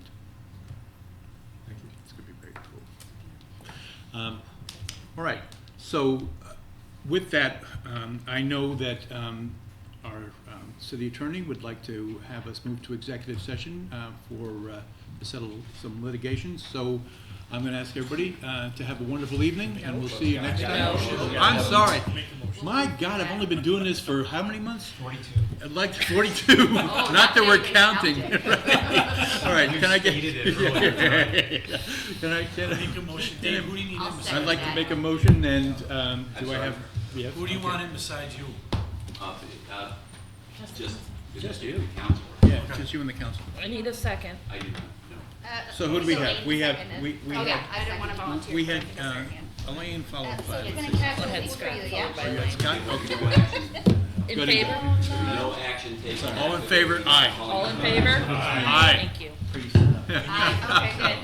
Um, All right, so uh, with that, um, I know that um, our um, city attorney would like to have us move to executive session uh, for, uh, to settle some litigation. So I'm going to ask everybody uh, to have a wonderful evening, and we'll see you next time. I'm sorry. My God, I've only been doing this for how many months? Forty-two. Like Oh, forty-two, not that we're counting. All right, can I get? Can I, can I? Make a motion, Dave, who do you need I'll in second. beside? I'd like to make a motion and, um, do I have? yeah, Who do you okay. want in beside you? Uh, uh, Just, Just just you. you, council. Yeah, just you and the council. I need a second. I do not, no. Uh, So who do we so have? Elaine We have, seconded. we, we Okay, had, I didn't want to Oh, volunteer. we for had, it because uh, I can. Elaine followed Uh, So by. you're gonna cast ahead, these for Scott, you, followed by Oh, you yeah? got Scott? Okay. No action- In Good. favor? No action taken. All in favor? Aye. All in favor? Aye. Thank you. Aye.